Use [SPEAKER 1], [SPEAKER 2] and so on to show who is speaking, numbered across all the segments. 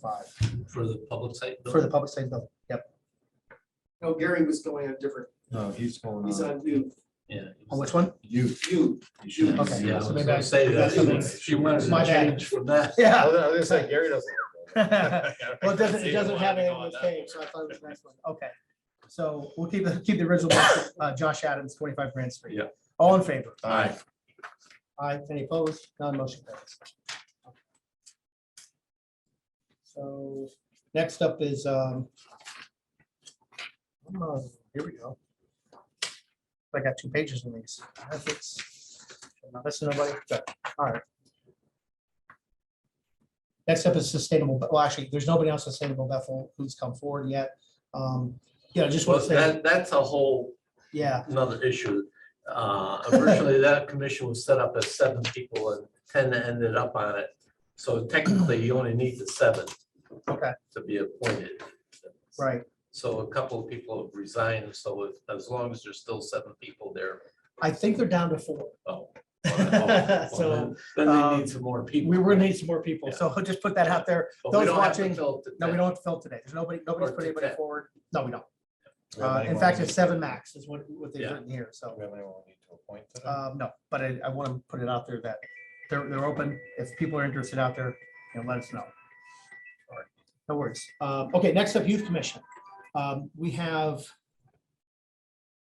[SPEAKER 1] five
[SPEAKER 2] for the public site.
[SPEAKER 1] for the
[SPEAKER 2] building?
[SPEAKER 1] public safety building. Yep.
[SPEAKER 3] No, Gary was going on different,
[SPEAKER 4] No, he's going
[SPEAKER 3] he's
[SPEAKER 4] on,
[SPEAKER 3] on you,
[SPEAKER 2] Yeah.
[SPEAKER 1] On which one?
[SPEAKER 4] you,
[SPEAKER 3] you.
[SPEAKER 4] you should.
[SPEAKER 1] Okay.
[SPEAKER 2] Yeah, I
[SPEAKER 1] so
[SPEAKER 2] was
[SPEAKER 1] maybe I-
[SPEAKER 2] gonna say that. I mean, She wanted
[SPEAKER 1] My
[SPEAKER 2] to
[SPEAKER 1] bad.
[SPEAKER 2] change from that.
[SPEAKER 1] Yeah.
[SPEAKER 5] was gonna say, Gary doesn't.
[SPEAKER 1] Well,
[SPEAKER 5] Well,
[SPEAKER 1] it doesn't, it doesn't have any of those names, so I thought it was the next one. Okay. So we'll keep, the keep the original, one, uh, Josh Adams, twenty-five Grand Street.
[SPEAKER 2] Yeah.
[SPEAKER 1] All in favor?
[SPEAKER 4] All right,
[SPEAKER 1] Aye, any opposed? None, motion carries. So next up is, um, uh, here we go. I got two pages in these. I think it's- now This is nobody, good, all right. Next up is sustainable, Be- well, actually, there's nobody else sustainable Bethel who's come forward yet. Um, yeah, I just want
[SPEAKER 2] Well,
[SPEAKER 1] to say,
[SPEAKER 2] that, that's a whole
[SPEAKER 1] yeah,
[SPEAKER 2] another issue. Uh, Originally, that commission was set up as seven people and ten ended up on it. So technically, you only need the seven.
[SPEAKER 1] Okay.
[SPEAKER 2] To be appointed.
[SPEAKER 1] right.
[SPEAKER 2] So a couple of people have resigned, so if- as long as there's still seven people there.
[SPEAKER 1] I think they're down to four.
[SPEAKER 2] oh, well,
[SPEAKER 1] So,
[SPEAKER 2] Then they
[SPEAKER 1] um,
[SPEAKER 2] need some more people.
[SPEAKER 1] We were gonna need some more people,
[SPEAKER 2] Yeah.
[SPEAKER 1] so just put that out there.
[SPEAKER 2] But we
[SPEAKER 1] those
[SPEAKER 2] don't have to
[SPEAKER 1] watching-
[SPEAKER 2] fill it to
[SPEAKER 1] No, we
[SPEAKER 2] 10.
[SPEAKER 1] don't have to fill today. There's nobody, nobody's
[SPEAKER 2] Or
[SPEAKER 1] put
[SPEAKER 2] to
[SPEAKER 1] anybody
[SPEAKER 2] 10.
[SPEAKER 1] forward. No, we don't.
[SPEAKER 4] We have
[SPEAKER 1] Uh,
[SPEAKER 4] anyone
[SPEAKER 1] In fact,
[SPEAKER 4] we
[SPEAKER 1] it's
[SPEAKER 4] need-
[SPEAKER 1] seven max is what, what they've
[SPEAKER 2] Yeah.
[SPEAKER 1] written here. So,
[SPEAKER 4] we have anyone we need to appoint to that?
[SPEAKER 1] um, no, but I, I want to put it out there that they're, they're open. If people are interested out there, you know, let us know. All right, No worries. Uh, okay, next up, Youth Commission. Um, we have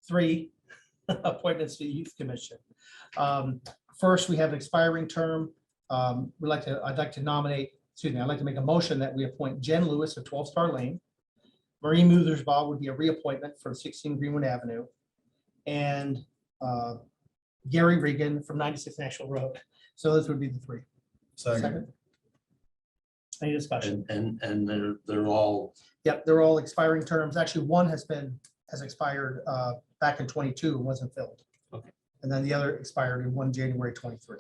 [SPEAKER 1] three appointments to the Youth Commission. Um, First, we have an expiring term. Um, We'd like to, I'd like to nominate, excuse me, I'd like to make a motion that we appoint Jen Lewis of 12 Star Lane. Marie Muthersbaugh would be a reappointment from 16 Greenwood Avenue. And uh, Gary Regan from 96 National Road. So those would be the three.
[SPEAKER 4] Second,
[SPEAKER 1] Second. Any discussion?
[SPEAKER 2] And, and, and they're, they're all,
[SPEAKER 1] Yep, they're all expiring terms. Actually, one has been, has expired uh, back in 22 and wasn't filled.
[SPEAKER 2] Okay.
[SPEAKER 1] And then the other expired in 1 January 23.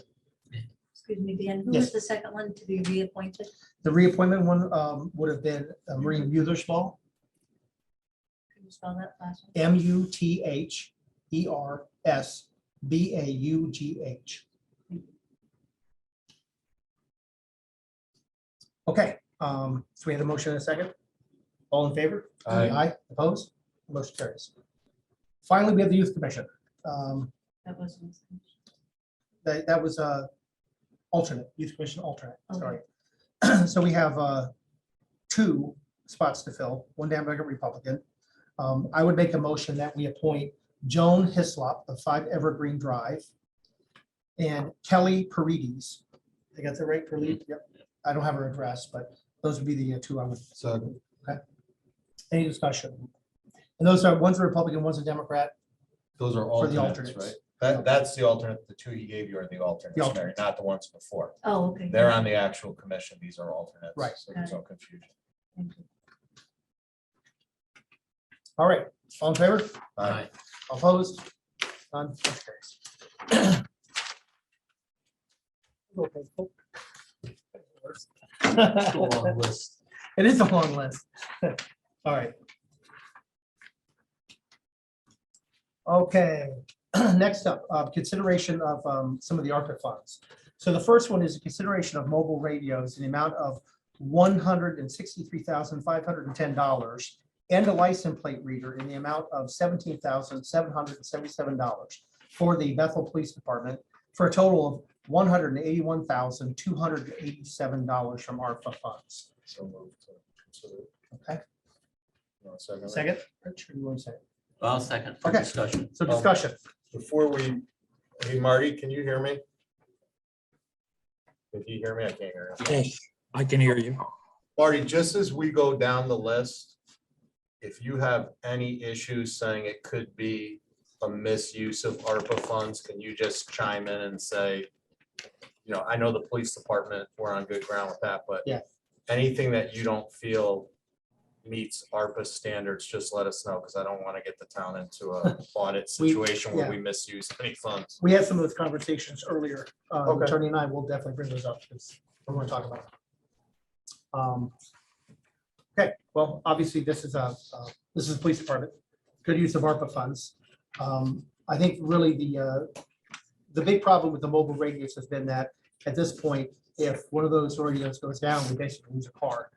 [SPEAKER 6] Excuse me, Dan, who
[SPEAKER 1] Yes.
[SPEAKER 6] was the second one to be reappointed?
[SPEAKER 1] The reappointment one um, would have been uh, Marie Muthersbaugh,
[SPEAKER 6] Can you spell that last one?
[SPEAKER 1] M U T H E R S B A U G H. Okay, um, so we had a motion and a second. All in favor?
[SPEAKER 4] Aye.
[SPEAKER 1] opposed? Motion carries. Finally, we have the youth commission. Um,
[SPEAKER 6] That wasn't.
[SPEAKER 1] That, that was uh alternate, youth commission alternate, sorry.
[SPEAKER 6] Okay.
[SPEAKER 1] So we have uh, two spots to fill, one Democrat, Republican. Um, I would make a motion that we appoint Joan Hislop of Five Evergreen Drive and Kelly Paredes. I got the right, Paredes? Yep. I don't have her address, but those would be the uh, two I would
[SPEAKER 4] second,
[SPEAKER 1] any discussion? And those are, one's a Republican, one's a Democrat.
[SPEAKER 4] those are
[SPEAKER 1] For the
[SPEAKER 4] alternates, right?
[SPEAKER 1] alternates.
[SPEAKER 4] That, that's the alternate, the two he gave you are the alternates, Mary,
[SPEAKER 1] alternates.
[SPEAKER 4] not the ones before.
[SPEAKER 6] Oh, okay.
[SPEAKER 4] They're on the actual commission, these are alternates.
[SPEAKER 1] Right.
[SPEAKER 4] So there's no confusion.
[SPEAKER 6] Thank you.
[SPEAKER 1] All right, all in favor?
[SPEAKER 4] All right,
[SPEAKER 1] Opposed? None. Motion carries.
[SPEAKER 2] go on list.
[SPEAKER 1] It is a long list. All right. Okay, next up, uh, consideration of um, some of the ARPA funds. So the first one is a consideration of mobile radios in the amount of one hundred and sixty-three thousand, five hundred and ten dollars and a license plate reader in the amount of seventeen thousand, seven hundred and seventy-seven dollars for the Bethel Police Department for a total of one hundred and eighty-one thousand, two hundred and eighty-seven dollars from ARPA funds.
[SPEAKER 4] so move to consider.
[SPEAKER 1] Okay.
[SPEAKER 4] You want a Second.
[SPEAKER 1] Second? Rich, or you want to say?
[SPEAKER 2] I'll second for
[SPEAKER 1] Okay.
[SPEAKER 2] discussion.
[SPEAKER 1] So
[SPEAKER 4] Um,
[SPEAKER 1] discussion.
[SPEAKER 4] Before we, hey Marty, can you hear me? If you hear me, I can't hear you.
[SPEAKER 7] Yes, I can hear you.
[SPEAKER 4] Marty, just as we go down the list, if you have any issues saying it could be a misuse of ARPA funds, can you just chime in and say, you know, I know the police department, we're on good ground with that, but
[SPEAKER 1] Yeah.
[SPEAKER 4] anything that you don't feel meets ARPA standards, just let us know, because I don't want to get the town into a audit
[SPEAKER 1] We-
[SPEAKER 4] situation where we misuse any funds.
[SPEAKER 1] We had some of those conversations earlier. Uh,
[SPEAKER 4] Okay.
[SPEAKER 1] Attorney and I will definitely bring those up because we're going to talk about. it. Um, Okay, well, obviously, this is a, uh, this is the police department. Good use of ARPA funds. Um, I think really the, uh, the big problem with the mobile radios has been that at this point, if one of those radios goes down, we basically lose a car.